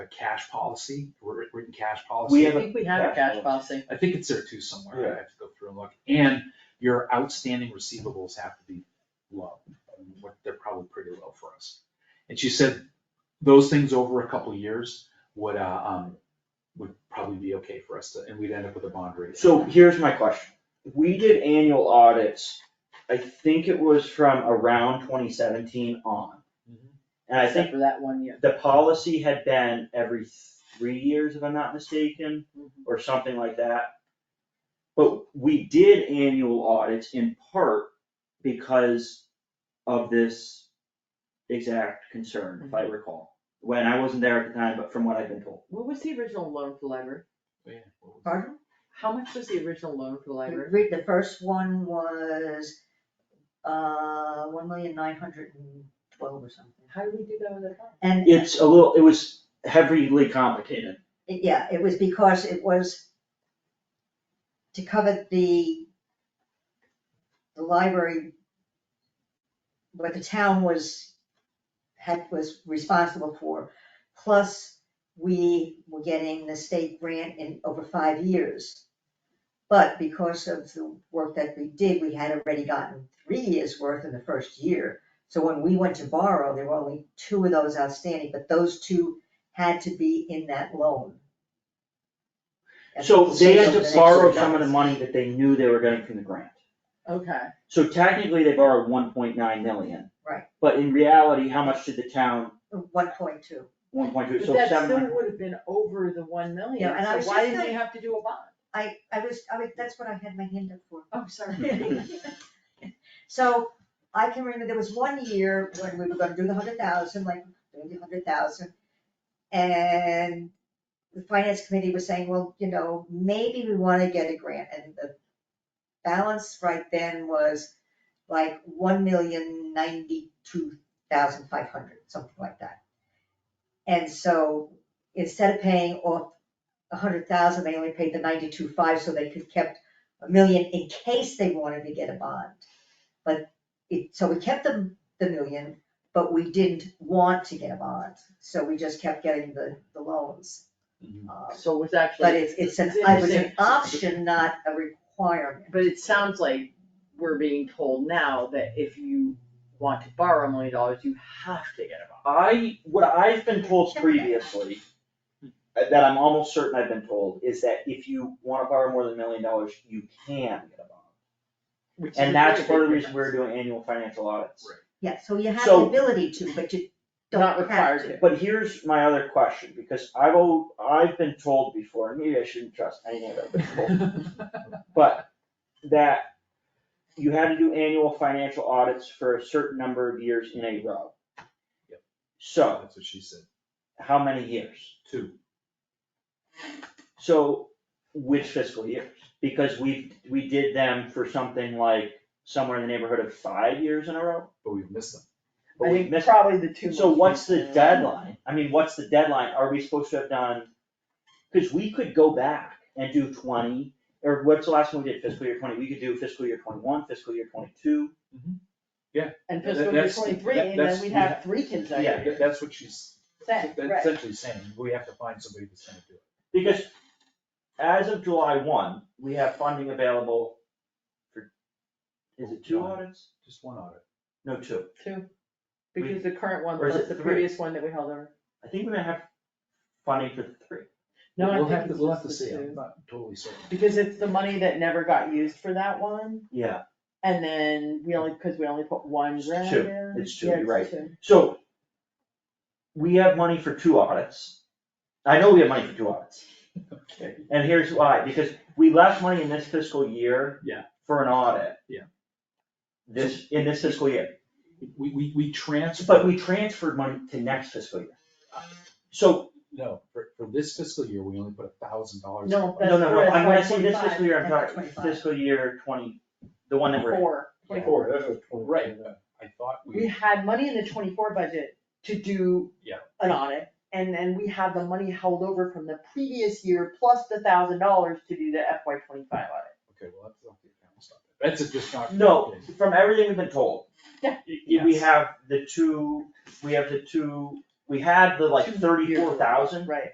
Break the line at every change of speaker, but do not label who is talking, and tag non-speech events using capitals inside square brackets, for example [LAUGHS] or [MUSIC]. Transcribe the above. a cash policy, wr- written cash policy.
We
I
have a
think we have a cash policy.
I think it's there too somewhere,
Yeah.
I have to go through and look, and your outstanding receivables have to be low, what, they're probably pretty low for us. And she said, those things over a couple of years would, uh, um, would probably be okay for us to, and we'd end up with a bond rating.
So here's my question. We did annual audits, I think it was from around twenty seventeen on.
Mhm.
And I
Except
think
for that one year.
the policy had been every three years, if I'm not mistaken, or something like that. But we did annual audits in part because of this exact concern, if I recall. When I wasn't there at the time, but from what I've been told.
What was the original loan for the library?
Yeah, what was it?
Pardon?
How much was the original loan for the library?
Read, the first one was, uh, one million nine hundred and twelve or something.
How did we do that with the bond?
And, it-
It's a little, it was heavily complicated.
yeah, it was because it was to cover the, the library, what the town was, had, was responsible for. Plus, we were getting the state grant in over five years. But because of the work that we did, we had already gotten three years' worth in the first year. So when we went to borrow, there were only two of those outstanding, but those two had to be in that loan. That's
So
what the
they had
state over the
to
next
borrow
two
some of the
years.
money that they knew they were getting from the grant.
Okay,
So technically, they borrowed one point nine million.
Right.
But in reality, how much did the town,
One point two.
one point two,
but
so
that
seven
still
hundred?
would have been over the one million,
Yeah, and I
so
was
why
just
did we
gonna-
have to do a bond?
I, I was, I was, that's what I had my hand up for.
Oh,
[LAUGHS]
sorry.
So I can remember there was one year when we were gonna do the hundred thousand, like, do the hundred thousand. And the finance committee was saying, well, you know, maybe we wanna get a grant, and the balance right then was like one million ninety-two thousand five hundred, something like that. And so instead of paying off a hundred thousand, they only paid the ninety-two five, so they could kept a million in case they wanted to get a bond. But it, so we kept the, the million, but we didn't want to get a bond, so we just kept getting the, the loans.
Mhm.
Um,
So it was actually.
But it's, it's an, it was an
interesting.
option, not a requirement.
But it sounds like we're being told now that if you want to borrow a million dollars, you have to get a bond.
I, what I've been told previously, uh, that I'm almost certain I've been told, is that if you wanna borrow more than a million dollars, you can get a bond.
which is a
And that's
very
part of the
big
reason we're
difference.
doing annual financial audits.
Right.
Yeah, so you have the
So-
ability to, but you don't
Not
have to.
required to.
But here's my other question, because I've, al- I've been told before, and maybe I shouldn't trust anything I've been told. But that you had to do annual financial audits for a certain number of years in a row.
Yep.
So,
That's what she said,
how many years?
two,
So, which fiscal years? Because we, we did them for something like somewhere in the neighborhood of five years in a row.
but we've missed them.
But
I
we
think
missed,
probably the two.
so
most
what's the
recent.
deadline? I mean, what's the deadline? Are we supposed to have done? Cause we could go back and do twenty, or what's the last one we did fiscal year twenty? We could do fiscal year twenty-one, fiscal year twenty-two.
And
That-
fiscal year
that's-
twenty-three,
that-
and then
that's-
we'd
we
have
have-
three kids that
Yeah.
That- That's what she's
Same,
that's
right.
essentially saying, we have to find somebody that's gonna do it.
Because as of July one, we have funding available for, is it two
One.
audits?
Just one audit.
No, two.
Two,
We-
because the current one,
or is
plus
it
the
three?
previous one that we held over.
I think we may have funding for three.
No, I
We'll
think
have to-
it's
We'll
just
have to
the
see, I'm
two.
not totally [LAUGHS] certain.
Because it's the money that never got used for that one,
Yeah.
and then we only, cause we only put one
It's
grant
two.
in.
It's two,
Yeah,
you're right.
two.
So we have money for two audits. I know we have money for two audits.
Okay.
And here's why, because we left money in this fiscal year.
Yeah.
For an audit.
Yeah.
This, in this fiscal year,
We, we, we transfer.
but we transferred money to next fiscal year. So
No, for, for this fiscal year, we only put a thousand dollars.
No, that's
No, no, no,
correct.
I'm gonna say this
25,
fiscal year, I'm
that's
talking
25.
fiscal year twenty, the one that we're in.
Four.
Twenty-four, Right, I thought
We
we,
had money in the twenty-four budget to do
Yeah.
an audit, and then we had the money held over from the previous year, plus the thousand dollars to do the FY twenty-five audit.
okay, well, that's not the account stuff. That's a- just not.
No, from everything we've been told,
Yeah.
y- y- we have the two, we have the two, we had the like
Two years ago.
thirty-four thousand,
Mm-hmm.
Right.